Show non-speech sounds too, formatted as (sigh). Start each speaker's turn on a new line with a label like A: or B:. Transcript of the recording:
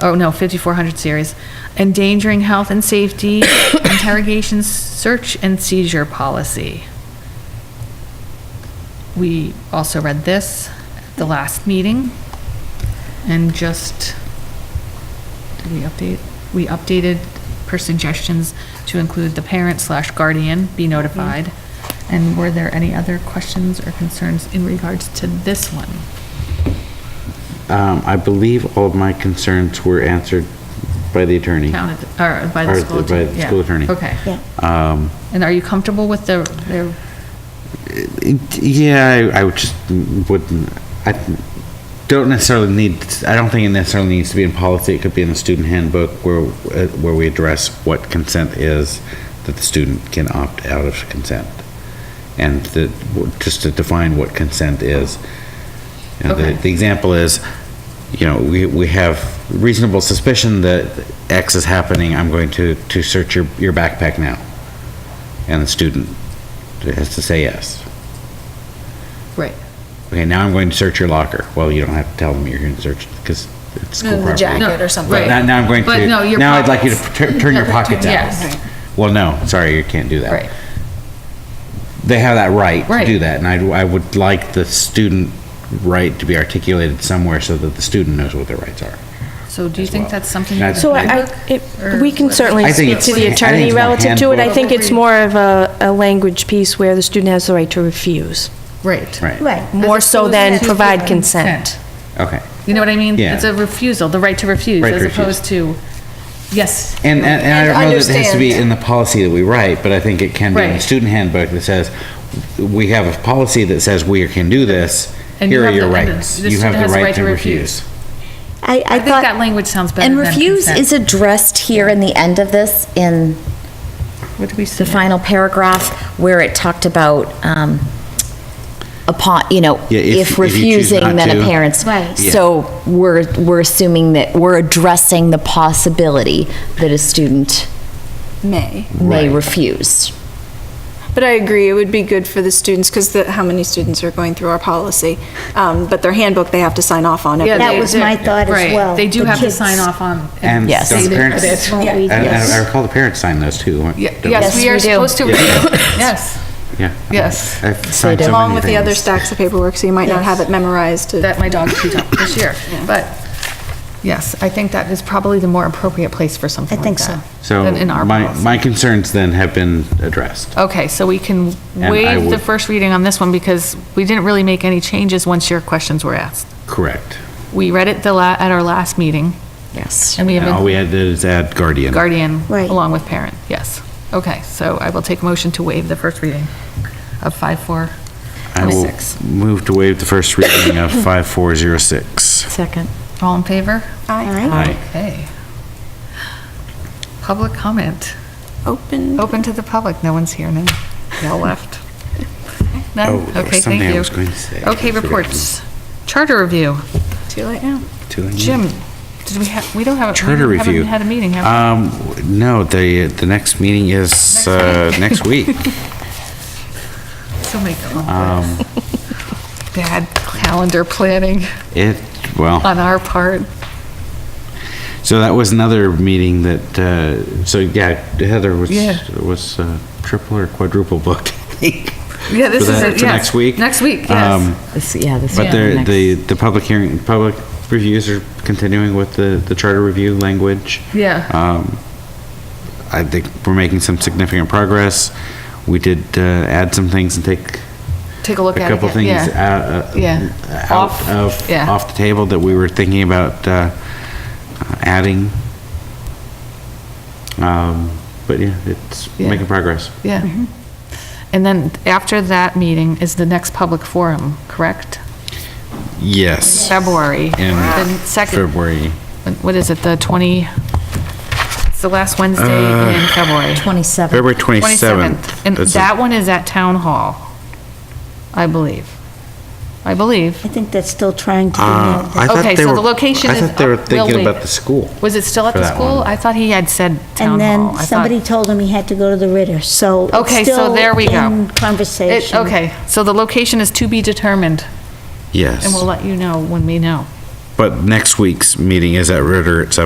A: oh no, 5400 series, endangering health and safety, (coughs) interrogation, search and seizure policy. We also read this at the last meeting and just, did we update? We updated per suggestions to include the parent slash guardian be notified. And were there any other questions or concerns in regards to this one?
B: Um, I believe all of my concerns were answered by the attorney.
A: Counted, or by the
B: Or
A: school
B: by
A: attorney?
B: the school
A: Yeah.
B: attorney. Um,
A: Okay.
C: Yeah.
A: And are you comfortable with the, their,
B: Yeah, I, I would just wouldn't. I don't necessarily need. I don't think it necessarily needs to be in policy. It could be in the student handbook where uh, where we address what consent is that the student can opt out of consent, and that just to define what consent is. You know,
A: Okay.
B: the, the example is, you know, we, we have reasonable suspicion that X is happening. I'm going to to search your your backpack now, and the student has to say yes.
A: right?
B: Okay, now I'm going to search your locker. Well, you don't have to tell them you're going to search because it's school
C: No, the
B: property.
C: jacket or something.
B: Now, now I'm going
A: But
B: to.
A: no, your
B: now I'd like you to
A: pockets.
B: tur- turn your pockets out.
A: Yes. Right.
B: Well, no, sorry, you can't do that.
A: Right.
B: They have that right,
A: Right.
B: to do that, and I'd, I would like the student right to be articulated somewhere so that the student knows what their rights are.
A: So do you
B: As
A: think
B: well.
A: that's something?
B: That's-
C: So I, I-
A: handbook or
C: it- we can
A: what?
C: certainly
B: I think
C: speak
B: it's-
C: to the
B: I think
C: attorney
B: it's more
C: relative to it. I
B: handbook.
C: think it's more of a, a language piece where the student has the right to refuse,
A: Right.
B: Right.
D: Right.
C: more so than
A: As opposed to
C: provide consent.
B: Okay.
A: You know what I mean?
B: Yeah.
A: It's a refusal, the right to refuse,
B: Right to
A: as
B: refuse.
A: opposed to, yes.
B: And, and, and I
D: And
B: don't know that it has to be
D: understand.
B: in the policy that we write, but I think it can be in the
A: Right.
B: student handbook that says, we have a policy that says we can do this,
A: And you
B: here are
A: have
B: your
A: the- and the-
B: rights.
A: the
B: You
A: student
B: have the
A: has
B: right to refuse.
D: I, I
A: I think
D: thought-
A: that language sounds better
D: And
A: than
D: refuse
A: consent.
D: is addressed here in the end of this, in
A: What do we
D: the
A: say?
D: final paragraph, where it talked about, um, upon, you know,
B: Yeah, if-
D: if
B: if you choose
D: refusing,
B: not
D: then a
B: to.
D: parent's.
C: Right.
B: Yeah.
D: So we're, we're assuming that, we're addressing the possibility that a student
C: May.
D: may
B: Right.
D: refuse.
C: But I agree, it would be good for the students, because the, how many students are going through our policy? Um, but their handbook, they have to sign off on it.
A: Yeah,
C: but
E: That
A: they-
C: they-
E: was
A: they-
E: my thought as
A: right.
E: well.
A: They do
E: The
A: have to
E: kids-
A: sign off on.
B: And
D: Yes.
B: don't
A: say
B: the
A: that
B: parents,
A: it's-
E: Won't
B: and
E: we
B: and I
E: just-
B: recall the parents signed those too. weren't-
A: Yeah,
B: don't-
A: Yes,
D: Yes,
A: we are
D: we do.
A: supposed to,
B: Yeah.
A: yes.
B: Yeah.
A: Yes.
B: I've signed so
C: Along
B: many
C: with the other
B: things.
C: stacks of paperwork, so you might not have it memorized. to-
A: that my dog chewed up this
E: (laughs)
A: year. But yes, I think that is probably the more appropriate place for something
E: I
A: like
E: think
A: that.
E: so.
B: So
A: Than in our
B: my,
A: policy.
B: my concerns then have been addressed.
A: Okay, so we can
B: And I
A: waive the
B: would-
A: first reading on this one because we didn't really make any changes once your questions were asked.
B: Correct.
A: We read it the la, at our last meeting
D: Yes.
A: and we
B: And all
A: have
B: we
A: been
B: had to do is add guardian.
A: guardian
E: Right.
A: along with parent, yes. Okay, so I will take a motion to waive the first reading of five, four,
B: I will
A: twenty-six.
B: move to waive the first reading of 5406.
D: Second.
A: All in favor?
C: Aye.
B: Aye.
A: Okay. Public comment.
C: Open.
A: Open to the public, no one's here now. They all left.
B: Oh,
A: None?
B: there was
A: Okay, thank
B: something I
A: you.
B: was going to say.
A: Okay,
B: I've forgotten.
A: reports. Charter review.
C: Too late now.
B: Two and-
A: Jim, did we have, we don't have. a- we
B: Mm. Charter
A: haven't
B: review.
A: Had a meeting, have
B: Um, no, the, the next meeting is, uh, next week.
A: (laughs)
B: Uh,
A: we? So many
B: um,
A: conflicts. Bad calendar planning
B: It, well.
A: on our part.
B: So that was another meeting that, uh, so yeah, Heather was,
A: Yeah.
B: was uh, triple or quadruple booked.
A: Yeah, this
B: For
A: is
B: that-
A: it,
B: For
A: yes.
B: next week?
A: Next week, yes.
B: Um,
D: Yeah, this.
B: But there, the, the public hearing, public reviews are continuing with the, the charter review language.
A: Yeah.
B: Um, I think we're making some significant progress. We did uh, add some things and take
A: Take a look at it.
B: a couple things
A: again, yeah.
B: uh, uh,
A: Yeah.
B: out
A: Off,
B: of
A: yeah.
B: off the table that we were thinking about uh, adding. Um, but yeah, it's
A: Yeah.
B: making progress. Mm-hmm.
A: Yeah. And then after that meeting is the next public forum, correct?
B: Yes.
A: February.
B: In
A: The second,
B: February.
A: what is it, the 20, it's the last Wednesday in February.
D: 27.
B: February 27th.
A: 27th. And
B: Uh, That's a-
A: that one is at Town Hall, I believe. I believe.
E: I think that's still trying to be
B: Uh, I
E: nailed.
B: thought
A: Okay,
B: they
A: so
B: were-
A: the location is.
B: I thought they were
A: up- well,
B: thinking
A: wait.
B: about the school.
A: Was it still at
B: for
A: the
B: that
A: school?
B: one.
A: I thought he had said Oh, Town
E: And
A: Hall.
E: then
A: I thought-
E: somebody told him he had to go to the Ritter, so
A: Okay,
E: it's
A: so
E: still
A: there we go.
E: in
A: It-
E: conversation.
A: Okay, so the location is to be determined,
B: Yes.
A: and we'll let you know when we know.
B: But next week's meeting is at Ritter at seven.